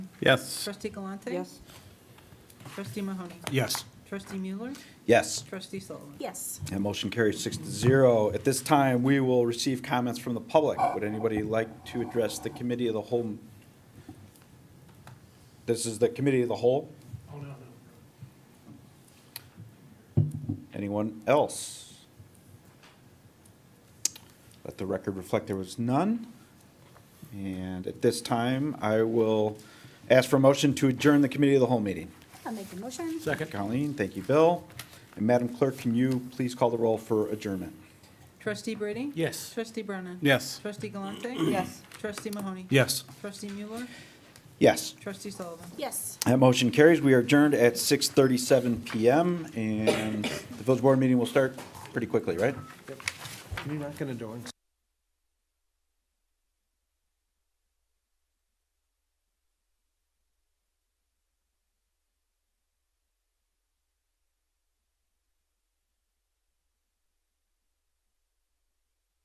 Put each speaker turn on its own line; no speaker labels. Yes.
Trustee Galante?
Yes.
Trustee Mahoney?
Yes.
Trustee Mueller?
Yes.
Trustee Sullivan?
Yes.
That motion carries six to zero. At this time, we will receive comments from the public. Would anybody like to address the committee of the whole? This is the committee of the whole? Anyone else? Let the record reflect there was none. And at this time, I will ask for a motion to adjourn the committee of the whole meeting.
I'll make the motion.
Second. Colleen, thank you, Bill. And Madam Clerk, can you please call the roll for adjournment?
Trustee Brady?
Yes.
Trustee Brennan?
Yes.
Trustee Galante?
Yes.
Trustee Mahoney?
Yes.
Trustee Mueller?
Yes,
Trustee Sullivan?
Yes.
that motion carries. We are adjourned at 6:37 PM, and the village board meeting will start pretty quickly, right?
Can you knock on the door and